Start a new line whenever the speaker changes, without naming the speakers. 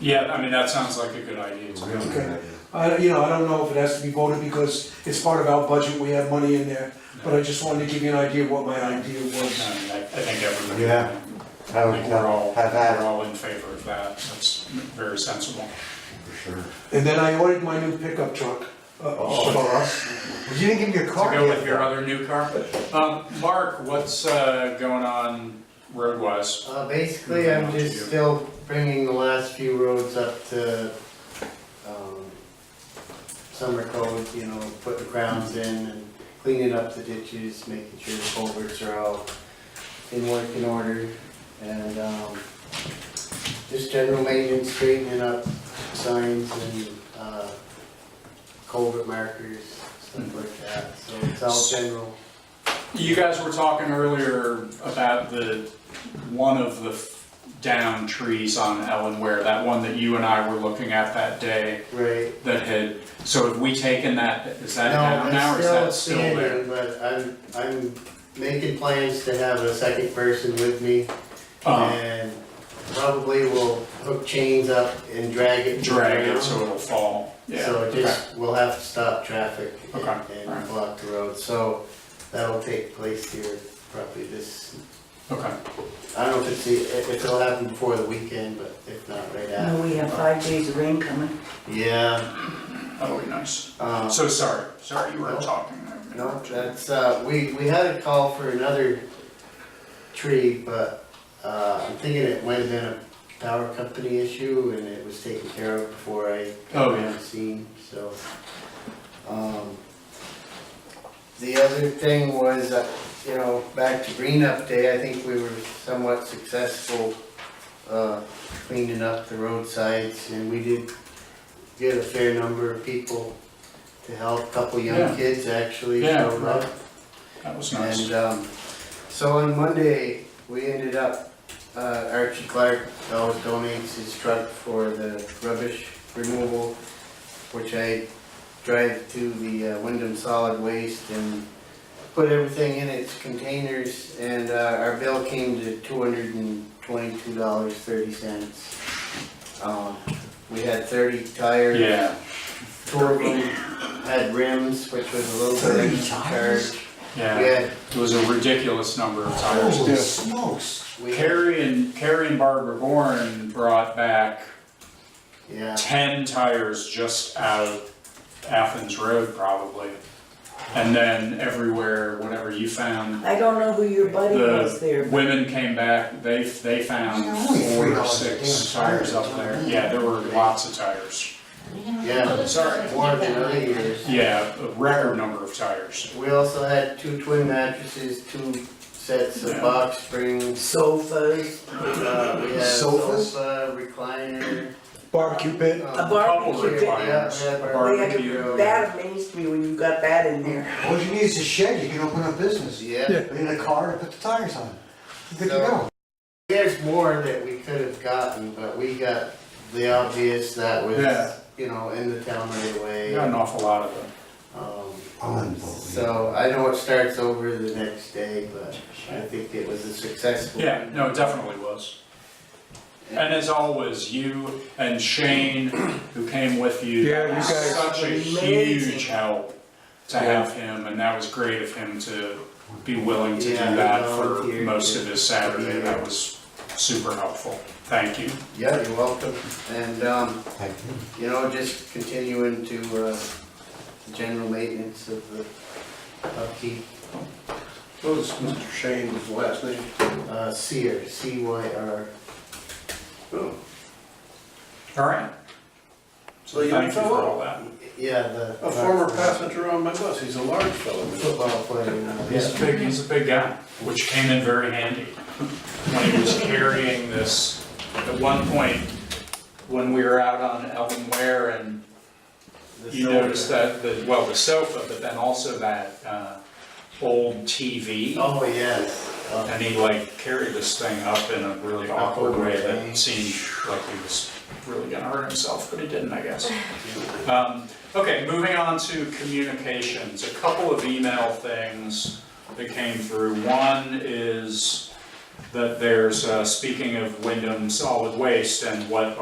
Yeah, I mean, that sounds like a good idea to me.
Okay. I, you know, I don't know if it has to be voted because it's part of our budget, we have money in there, but I just wanted to give you an idea what my idea was.
I mean, I I think everybody.
Yeah. I
I
would
think we're all,
have
we're
that
all in favor of that, that's very sensible.
for sure.
And then I ordered my new pickup truck, uh,
Oh.
for us.
You didn't give me your
To
card
go with
yet.
your other new car. Um, Mark, what's, uh, going on roadwise?
Uh, basically, I'm just still bringing the last few roads up to, um, summer code, you know, putting crowns in and cleaning up the ditches, making sure the culverts are all in working order. And, um, just general maintenance, straightening up signs and, uh, culvert markers, stuff like that. So it's all general.
You guys were talking earlier about the, one of the f- down trees on Ellen Ware, that one that you and I were looking at that day
Right.
that had, so have we taken that, is that
No,
down now or is that
it's
still
still
there?
standing, but I'm, I'm making plans to have a second person with me
Uh,
and probably will hook chains up and drag it. to the
drag it
ground.
so it'll fall, yeah.
So it
okay.
just, we'll have to stop traffic and-
Okay, alright.
and block the road, so that'll take place here probably this,
Okay,
I don't know if it's, the- if it'll happen before the weekend, but if not, right
And
after.
we have five days of rain coming.
Yeah,
that'll be nice.
um,
So sorry, sorry you were
No.
talking. I
No,
interrupted.
that's, uh, we, we had a call for another tree, but, uh, I'm thinking it might have been a power company issue and it was taken care of before I
Oh,
got
yeah.
on the scene, so. Um, the other thing was, uh, you know, back to green up day, I think we were somewhat successful, uh, cleaning up the roadsides and we did get a fair number of people to help, a couple
Yeah.
young kids actually uh,
Yeah,
showed up.
That was nice.
And, um, so on Monday, we ended up, uh, Archie Clark always donates his truck for the rubbish removal, which I drive to the uh, Wyndham Solid Waste and put everything in its containers, and, uh, our bill came to two hundred and twenty-two dollars, thirty cents. Um, we had thirty tires.
Yeah,
Four of them had rims, which was a little bit of a charge. We
yeah,
had,
it was a ridiculous number of
Oh.
tires.
Holy smokes.
we had,
Carrie and, Carrie and Barbara Bourne brought back
yeah,
ten tires just out of Athens Road probably. And then everywhere, whatever you found,
I don't know who your buddy
The-
was there, but
women came back, they, they found
Yeah, only
four
three
or
dollars a
six
damn
tires
tire,
up there.
John.
Yeah, there were lots of tires.
yeah,
Sorry.
more than other years.
Yeah, a record number of tires.
We also had two twin mattresses, two sets of
Yeah.
box springs,
sofas,
uh, we had a
Sofas?
sofa, recliner.
Barbecue pit,
a
um,
Couple
barbecue pit.
recliners. yeah,
recliners,
yeah,
a
Oh, yeah,
barbecue.
That amazed me when you got that in there.
All you need is a shed, you can open up business. You
Yeah,
need a car to put the tires on. You're Good to
So-
go.
there's more that we could have gotten, but we got the obvious
Yeah.
that was, you know, in the town right away.
We Got an awful lot of them.
Um,
Unbelievable.
So I know it starts over the next day, but I think it was a successful.
Yeah, no, it definitely was. And as always, you and Shane, who came with you.
Yeah, you
that was
guys-
Such a
Amazing.
huge help to have him, and that was great of him to be willing to do
Yeah, he
that for
volunteered.
most of his Saturday.
Yeah.
That was super helpful. Thank you.
Yeah, you're welcome. And, um,
Thank you.
you know, just continuing to, uh, the general maintenance of the upkeep,
What was Mr. Shane's last name?
uh, Cyr, C Y R.
Oh,
All right.
Well,
So
you
thank you for
fellow.
all that.
Yeah, the.
A former passenger on my bus, he's a large fellow.
Football player. now, yeah.
He's a big, he's a big guy, which came in very handy when he was carrying this. At one point, when we were out on Elvin Ware and
The
you
shoulder.
noticed that, the well, the sofa, but then also that uh, old TV.
Oh, yes. Uh,
And he like carried this thing up in a really awkward way that seemed like he was really gonna hurt himself, but he didn't, I guess. Um, Okay, moving on to communications, a couple of email things that came through. One is that there's, uh, speaking of Wyndham Solid Waste and what